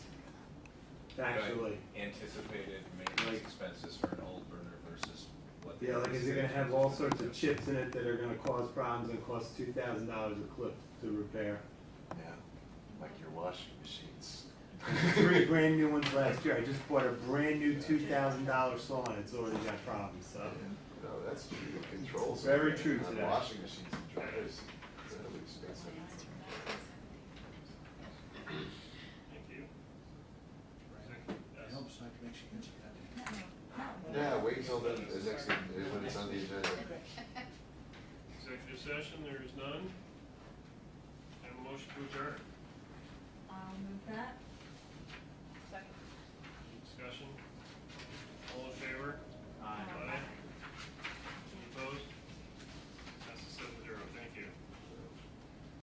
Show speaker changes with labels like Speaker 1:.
Speaker 1: actually.
Speaker 2: anticipated maintenance
Speaker 1: Like-
Speaker 2: expenses for an old burner versus what. the
Speaker 1: Yeah, like is it gonna have all sorts of chips in it that are gonna cause problems and cost two thousand dollars a clip to repair?
Speaker 3: Yeah, like your washing machines.
Speaker 1: Three brand new ones last year, I just bought a brand new two thousand dollar saw and it's already got problems, so.
Speaker 3: No, that's true, the controls.
Speaker 1: Very
Speaker 3: on-
Speaker 1: true
Speaker 3: on
Speaker 1: today.
Speaker 3: Washing machines and dryers, it's really expensive.
Speaker 4: Thank you.
Speaker 5: It helps not to make you answer that.
Speaker 3: Yeah, wait till the, the next, when it's on the agenda.
Speaker 4: Executive session, there is none. And motion to adjourn.
Speaker 6: I'll move that.